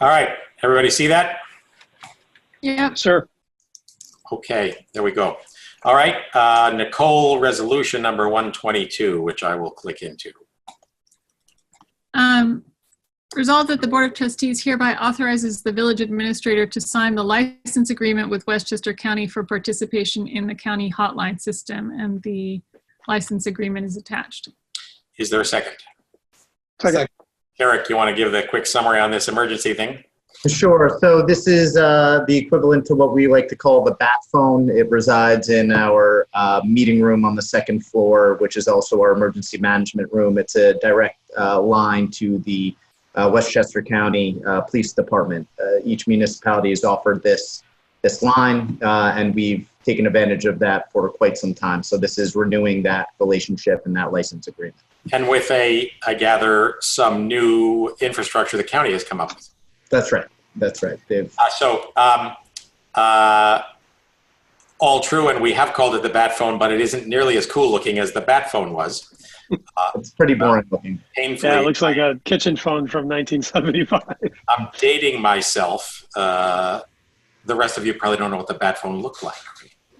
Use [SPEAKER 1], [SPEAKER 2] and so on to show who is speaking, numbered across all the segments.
[SPEAKER 1] All right, everybody see that?
[SPEAKER 2] Yep,
[SPEAKER 3] Sir,
[SPEAKER 1] Okay, there we go. All right, uh, Nicole, resolution number 122, which I will click into.
[SPEAKER 2] um, resolved that the Board of Trustees hereby authorizes the village administrator to sign the license agreement with Westchester County for participation in the county hotline system, and the license agreement is attached.
[SPEAKER 1] Is there a second?
[SPEAKER 3] second,
[SPEAKER 1] Eric, you want to give the quick summary on this emergency thing?
[SPEAKER 4] Sure. So this is uh, the equivalent to what we like to call the bat phone. It resides in our uh, meeting room on the second floor, which is also our emergency management room. It's a direct uh, line to the uh, Westchester County uh, Police Department. Uh, each municipality is offered this this line, uh, and we've taken advantage of that for quite some time. So this is renewing that relationship and that license agreement.
[SPEAKER 1] And with a, I gather, some new infrastructure the county has come up with.
[SPEAKER 4] That's right. That's right. They've
[SPEAKER 1] Uh, so, um, uh, all true, and we have called it the bat phone, but it isn't nearly as cool looking as the bat phone was.
[SPEAKER 4] it's pretty boring looking.
[SPEAKER 1] Painfully,
[SPEAKER 3] yeah, it looks like a kitchen phone from 1975.
[SPEAKER 1] I'm dating myself. Uh, the rest of you probably don't know what the bat phone looked like.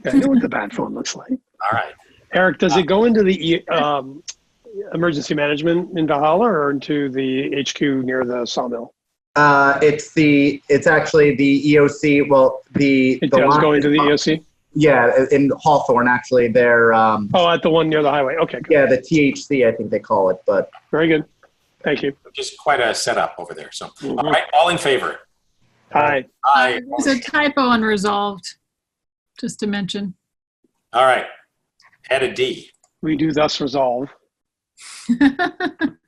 [SPEAKER 3] Yeah, I know what the bat phone looks like.
[SPEAKER 1] All right.
[SPEAKER 3] Eric, does it go into the E- um, emergency management in Valhalla or into the HQ near the sawmill?
[SPEAKER 4] Uh, it's the it's actually the EOC. Well, the
[SPEAKER 3] It
[SPEAKER 4] the
[SPEAKER 3] does
[SPEAKER 4] line-
[SPEAKER 3] go into the E EOC?
[SPEAKER 4] Yeah, in Hawthorne, actually, they're um,
[SPEAKER 3] Oh, at the one near the highway. Okay, good.
[SPEAKER 4] yeah the THC, I think they call it. But
[SPEAKER 3] Very good. Thank you.
[SPEAKER 1] Just quite a setup over there. So, all
[SPEAKER 3] Mhm.
[SPEAKER 1] right, all in favor?
[SPEAKER 3] Hi.
[SPEAKER 1] Aye.
[SPEAKER 2] There's a typo unresolved, just to mention.
[SPEAKER 1] All right. Add a D.
[SPEAKER 3] We do thus resolve.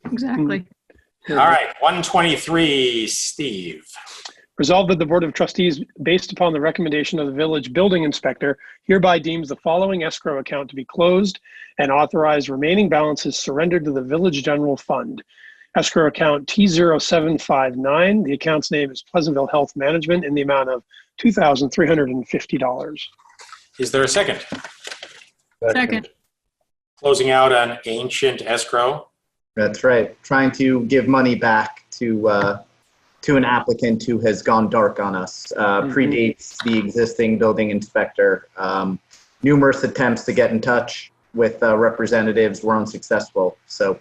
[SPEAKER 2] Exactly.
[SPEAKER 1] All right, 123, Steve.
[SPEAKER 3] Resolved that the Board of Trustees, based upon the recommendation of the village building inspector, hereby deems the following escrow account to be closed and authorized remaining balances surrendered to the village general fund. Escrow account T0759, the account's name is Pleasantville Health Management in the amount of $2,350.
[SPEAKER 1] Is there a second?
[SPEAKER 2] Second,
[SPEAKER 1] Closing out on ancient escrow.
[SPEAKER 4] that's right, trying to give money back to uh, to an applicant who has gone dark on us uh,
[SPEAKER 3] Mhm.
[SPEAKER 4] predates the existing building inspector. Um, numerous attempts to get in touch with uh, representatives were unsuccessful, so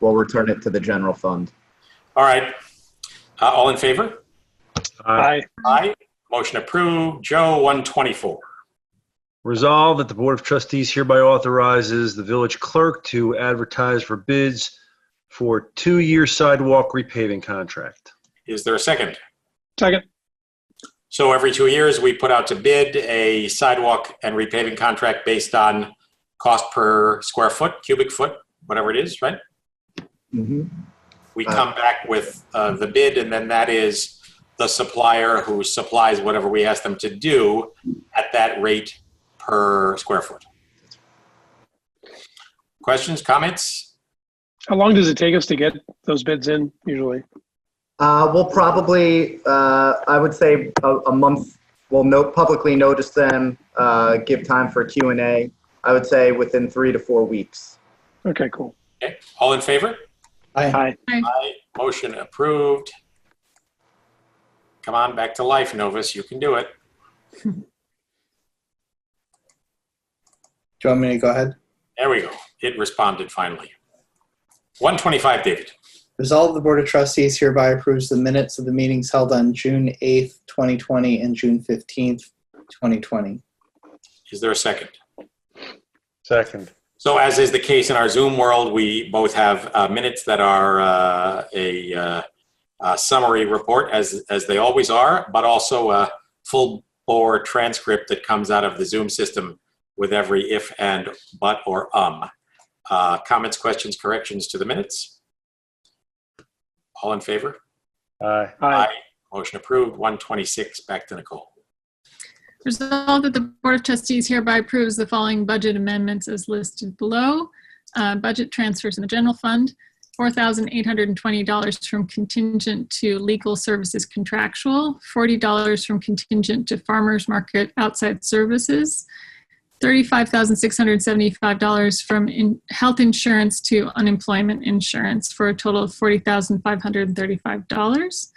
[SPEAKER 4] we'll return it to the general fund.
[SPEAKER 1] All right. Uh, all in favor?
[SPEAKER 5] Aye.
[SPEAKER 3] Aye.
[SPEAKER 1] Aye. Motion approved. Joe, 124.
[SPEAKER 5] Resolved that the Board of Trustees hereby authorizes the village clerk to advertise for bids for two-year sidewalk repaving contract.
[SPEAKER 1] Is there a second?
[SPEAKER 3] Second.
[SPEAKER 1] So every two years, we put out to bid a sidewalk and repaving contract based on cost per square foot, cubic foot, whatever it is, right?
[SPEAKER 4] Mm-hmm.
[SPEAKER 1] We
[SPEAKER 4] Uh.
[SPEAKER 1] come back with uh, the bid, and then that is the supplier who supplies whatever we ask them to do at that rate per square foot. Questions, comments?
[SPEAKER 3] How long does it take us to get those bids in usually?
[SPEAKER 4] Uh, we'll probably, uh, I would say a, a month, we'll no, publicly notice them, uh, give time for Q and A. I would say within three to four weeks.
[SPEAKER 3] Okay, cool.
[SPEAKER 1] Okay, all in favor?
[SPEAKER 3] Aye.
[SPEAKER 1] Aye, motion approved. Come on, back to life, Novus, you can do it.
[SPEAKER 6] Do you want me to go ahead?
[SPEAKER 1] There we go. It responded finally. 125, David.
[SPEAKER 6] Resolve the Board of Trustees hereby approves the minutes of the meetings held on June 8th, 2020 and June 15th, 2020.
[SPEAKER 1] Is there a second?
[SPEAKER 5] Second.
[SPEAKER 1] So as is the case in our Zoom world, we both have uh, minutes that are uh, a uh, uh, summary report, as, as they always are, but also a full bore transcript that comes out of the Zoom system with every if and but or um. Uh, Comments, questions, corrections to the minutes? All in favor?
[SPEAKER 5] Aye.
[SPEAKER 3] Aye.
[SPEAKER 1] Motion approved. 126, back to Nicole.
[SPEAKER 2] Resolved that the Board of Trustees hereby approves the following budget amendments as listed below. Uh, Budget transfers in the general fund, $4,820 from contingent to legal services contractual, $40 from contingent to farmers market outside services, $35,675 from in- health insurance to unemployment insurance for a total of $40,535.